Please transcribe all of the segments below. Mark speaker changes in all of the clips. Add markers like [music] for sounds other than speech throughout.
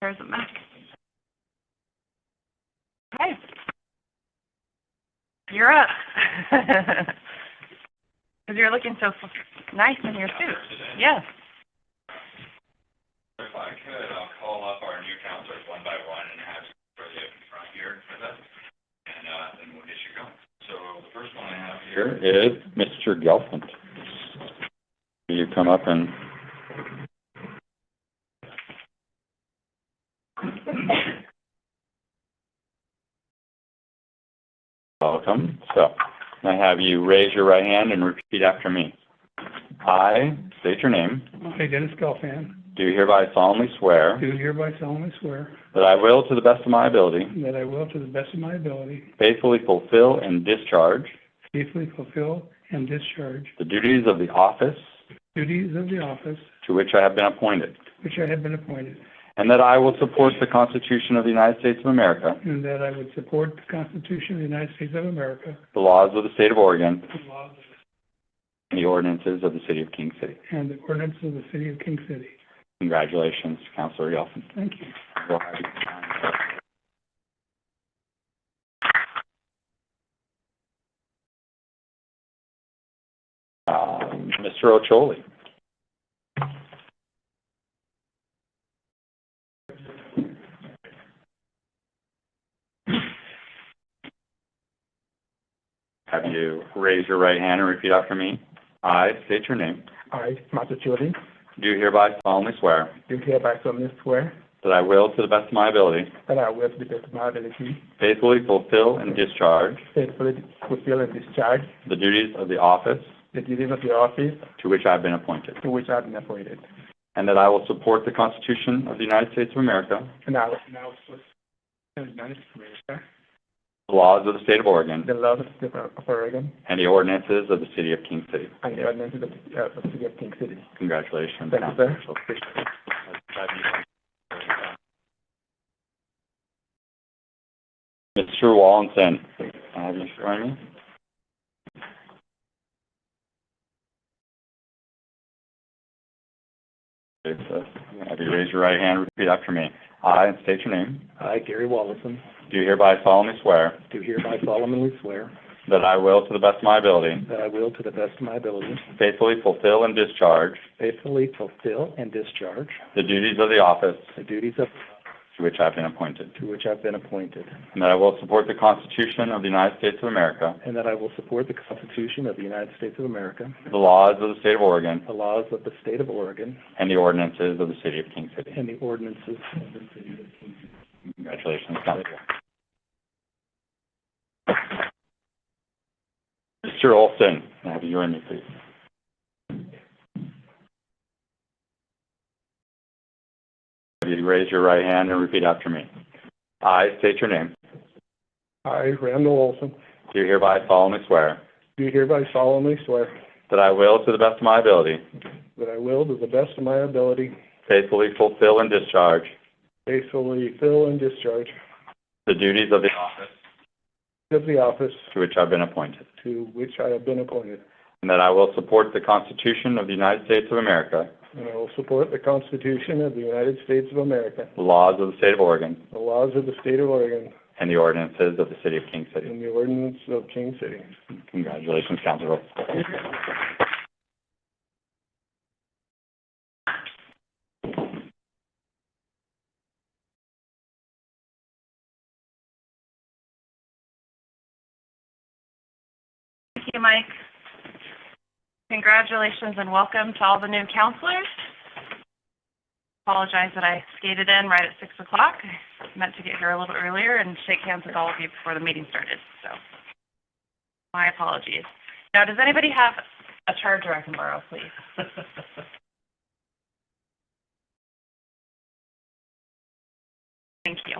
Speaker 1: There's a Mac. Okay. You're up. [laughs] Because you're looking so f- nice in your suit. Yes.
Speaker 2: If I could, I'll call up our new counselors one by one and have everybody up in front here for this, and, uh, then we'll get you going. So the first one I have here is Mr. Gelfand. Will you come up and? Welcome. So, I have you raise your right hand and repeat after me. I state your name,
Speaker 3: I, Dennis Gelfand,
Speaker 2: do hereby solemnly swear.
Speaker 3: do hereby solemnly swear
Speaker 2: That I will, to the best of my ability,
Speaker 3: that I will, to the best of my ability,
Speaker 2: faithfully fulfill and discharge
Speaker 3: faithfully fulfill and discharge
Speaker 2: the duties of the office
Speaker 3: duties of the office
Speaker 2: to which I have been appointed,
Speaker 3: which I have been appointed,
Speaker 2: and that I will support the Constitution of the United States of America,
Speaker 3: and that I would support the Constitution of the United States of America,
Speaker 2: the laws of the state of Oregon,
Speaker 3: the laws of the-
Speaker 2: and the ordinances of the city of King City.
Speaker 3: and the ordinances of the city of King City.
Speaker 2: Congratulations, Councilor Yelfin.
Speaker 3: Thank you.
Speaker 2: Go ahead. Uh, Mr. Ocholi. Have you raise your right hand and repeat after me? I state your name.
Speaker 4: I, Master Chilton,
Speaker 2: Do hereby solemnly swear
Speaker 4: do hereby solemnly swear
Speaker 2: that I will, to the best of my ability,
Speaker 4: that I will, to the best of my ability,
Speaker 2: faithfully fulfill and discharge
Speaker 4: faithfully fulfill and discharge
Speaker 2: the duties of the office
Speaker 4: the duties of the office
Speaker 2: to which I have been appointed,
Speaker 4: to which I have been appointed,
Speaker 2: and that I will support the Constitution of the United States of America,
Speaker 4: and I will now support the United States of America,
Speaker 2: the laws of the state of Oregon,
Speaker 4: the laws of the state of Oregon,
Speaker 2: and the ordinances of the city of King City.
Speaker 4: and the ordinances of the uh, of the city of King City.
Speaker 2: Congratulations.
Speaker 4: Thank you, sir.
Speaker 2: Council. Mr. Wallensen, have you sworn me? Okay, so, Have you raised your right hand, and repeat after me. I, and state your name,
Speaker 5: I, Gary Wallison,
Speaker 2: do hereby solemnly swear
Speaker 5: do hereby solemnly swear
Speaker 2: that I will, to the best of my ability,
Speaker 5: that I will, to the best of my ability,
Speaker 2: faithfully fulfill and discharge
Speaker 5: faithfully fulfill and discharge
Speaker 2: the duties of the office
Speaker 5: the duties of,
Speaker 2: to which I have been appointed.
Speaker 5: to which I've been appointed,
Speaker 2: And that I will support the Constitution of the United States of America,
Speaker 5: and that I will support the Constitution of the United States of America,
Speaker 2: the laws of the State of Oregon,
Speaker 5: the laws of the State of Oregon,
Speaker 2: and the ordinances of the City of King City.
Speaker 5: and the ordinances of the city of Kingston.
Speaker 2: Congratulations, Council. Mr. Olson, can I have you join me, please? If you raise your right hand and repeat after me. I state your name.
Speaker 4: I, Randall Olson,
Speaker 2: Do hereby solemnly swear
Speaker 4: do hereby solemnly swear
Speaker 2: that I will, to the best of my ability,
Speaker 4: that I will, to the best of my ability,
Speaker 2: faithfully fulfill and discharge
Speaker 4: faithfully fill and discharge
Speaker 2: the duties of the office
Speaker 4: of the office
Speaker 2: to which I've been appointed,
Speaker 4: to which I have been appointed,
Speaker 2: and that I will support the Constitution of the United States of America,
Speaker 4: and I will support the Constitution of the United States of America,
Speaker 2: the laws of the State of Oregon,
Speaker 4: the laws of the state of Oregon,
Speaker 2: and the ordinances of the City of King City.
Speaker 4: and the ordinance of King City.
Speaker 2: Congratulations, Councilor.
Speaker 1: Thank you, Mike. Congratulations and welcome to all the new counselors. Apologize that I skated in right at six o'clock. I Meant to get here a little earlier and shake hands with all of you before the meeting started, so my apologies. Now, does anybody have a charger I can borrow, please? [laughs] Thank you.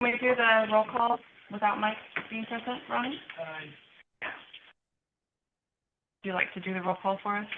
Speaker 1: Can we do the roll call without Mike being present, Ronnie? Would you like to do the roll call for us?